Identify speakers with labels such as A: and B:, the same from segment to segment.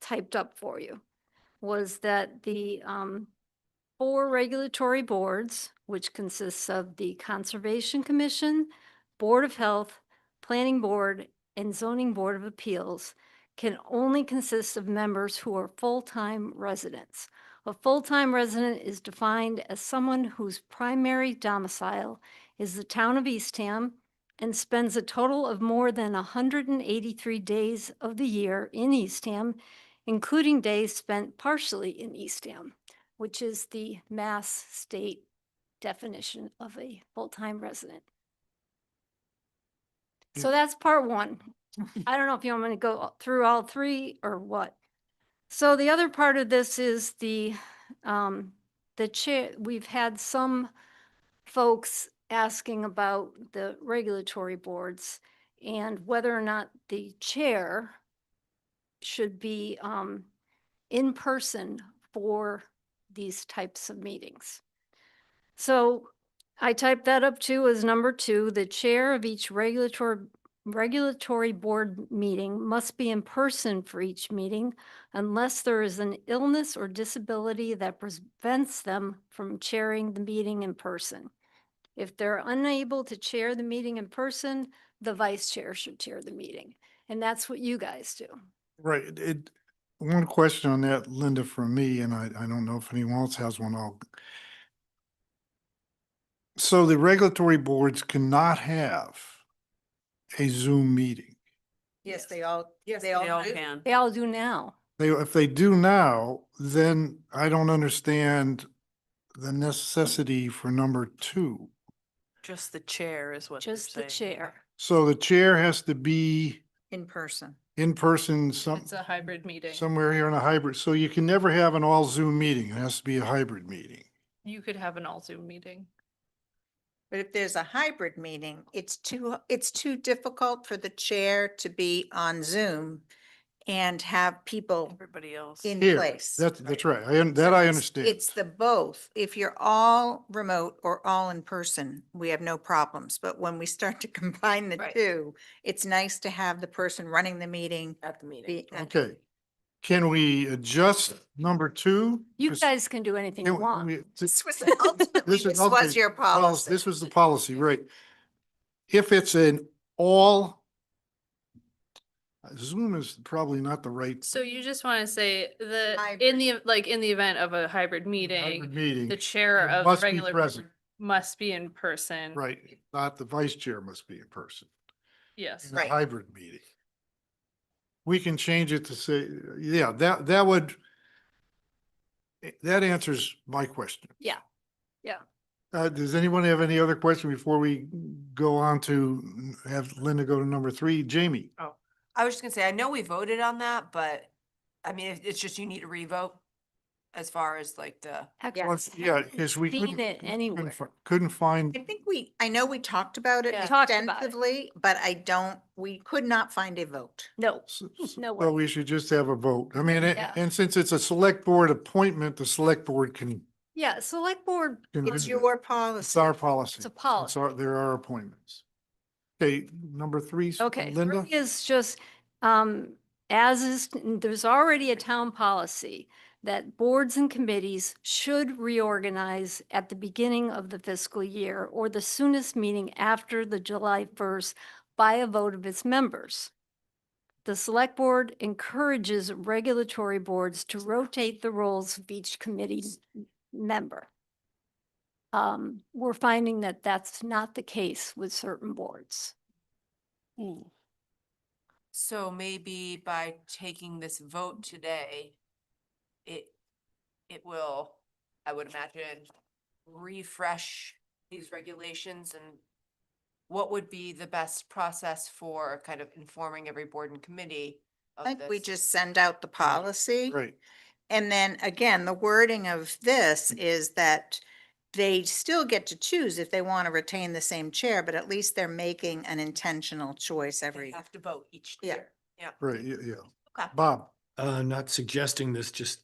A: typed up for you was that the um, four regulatory boards, which consists of the Conservation Commission, Board of Health, Planning Board, and Zoning Board of Appeals, can only consist of members who are full-time residents. A full-time resident is defined as someone whose primary domicile is the town of Eastham and spends a total of more than 183 days of the year in Eastham, including days spent partially in Eastham, which is the mass state definition of a full-time resident. So that's part one. I don't know if you want me to go all- through all three or what. So the other part of this is the, um, the chair, we've had some folks asking about the regulatory boards and whether or not the chair should be, um, in person for these types of meetings. So I typed that up too as number two, the chair of each regulatory regulatory board meeting must be in person for each meeting unless there is an illness or disability that prevents them from chairing the meeting in person. If they're unable to chair the meeting in person, the vice chair should chair the meeting. And that's what you guys do.
B: Right, it- it, one question on that, Linda, from me, and I, I don't know if anyone else has one, I'll. So the regulatory boards cannot have a Zoom meeting.
C: Yes, they all,
D: Yes,
C: they all do.
D: can.
A: They all do now.
B: They, if they do now, then I don't understand the necessity for number two.
D: Just the chair is what
A: Just the chair.
B: So the chair has to be
C: in person.
B: in person some,
E: It's a hybrid meeting.
B: somewhere here in a hybrid, so you can never have an all Zoom meeting, it has to be a hybrid meeting.
E: You could have an all Zoom meeting.
C: But if there's a hybrid meeting, it's too, it's too difficult for the chair to be on Zoom and have people
D: Everybody else.
C: in
B: Here,
C: place.
B: That's, that's right. I, un- that I
C: It's-
B: understand.
C: It's the both. If you're all remote or all in person, we have no problems. But when we start to combine the
E: Right.
C: two, it's nice to have the person running the meeting.
D: At the meeting.
C: be at-
B: Okay. Can we adjust number two?
A: You
B: Just-
A: guys can do anything you
B: can we-
A: want.
B: we-
C: This was ultimately,
B: This is
C: this was
B: ultimately
C: your policy.
B: This was the policy, right? If it's an all Zoom is probably not the right
E: So you just want to say the,
C: Hybrid.
E: in the, like, in the event of a hybrid meeting,
B: meeting.
E: the chair
B: It
E: of
B: must
E: the
B: be
E: regular
B: present.
E: board must be in person.
B: Right, not the vice chair must be in person
E: Yes.
B: in a
C: Right.
B: hybrid meeting. We can change it to say, yeah, that, that would eh, that answers my question.
A: Yeah. Yeah.
B: Uh, does anyone have any other question before we go on to have Linda go to number three? Jamie?
A: Oh,
F: I was just gonna say, I know we voted on that, but I mean, it- it's just you need to revote as far as like the,
A: Actually,
B: Well,
A: I
B: Yeah,
A: haven't
B: because we
A: Seen
B: couldn't,
A: it
B: couldn't
A: anywhere.
B: fi- couldn't
C: I
B: find,
C: think we, I know we talked about it
A: Yeah. Talked about it.
C: extensively, but I don't, we could not find a vote.
A: No,
B: s- s-
A: No way.
B: so we should just have a vote. I mean,
A: Yeah.
B: a- and since it's a select board appointment, the select board can.
A: yeah, select board,
B: can
C: It's
B: visit it.
C: your
B: It's
C: policy.
B: our policy.
A: it's a
B: It's
A: policy.
B: our, there are appointments. Okay, number three, s-
A: Okay,
B: Linda?
A: three is just, um, as is, there's already a town policy that boards and committees should reorganize at the beginning of the fiscal year or the soonest meeting after the July first by a vote of its members. The select board encourages regulatory boards to rotate the roles of each committee member. Um, we're finding that that's not the case with certain boards.
F: so maybe by taking this vote today, it, it will, I would imagine, refresh these regulations and what would be the best process for kind of informing every board and committee
C: I
F: of
C: think we
F: this?
C: just send out the policy.
B: Right,
C: And then again, the wording of this is that they still get to choose if they want to retain the same chair, but at least they're making an intentional choice
F: They
C: every.
F: have to vote each
C: Yeah.
F: year. Yeah.
B: right, yeah, yeah.
F: Okay.
B: Bob,
G: Uh, not suggesting this, just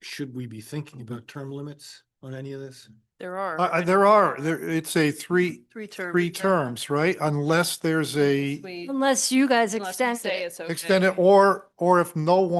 G: should we be thinking about term limits on any of this?
D: There are.
B: I, I, Uh, there are, there, it's a three,
D: Three terms.
B: three terms, right? Unless there's a
E: We-
A: Unless you guys
E: unless we
A: extend
E: say
A: it.
E: it's okay.
B: extended, or, or if no one.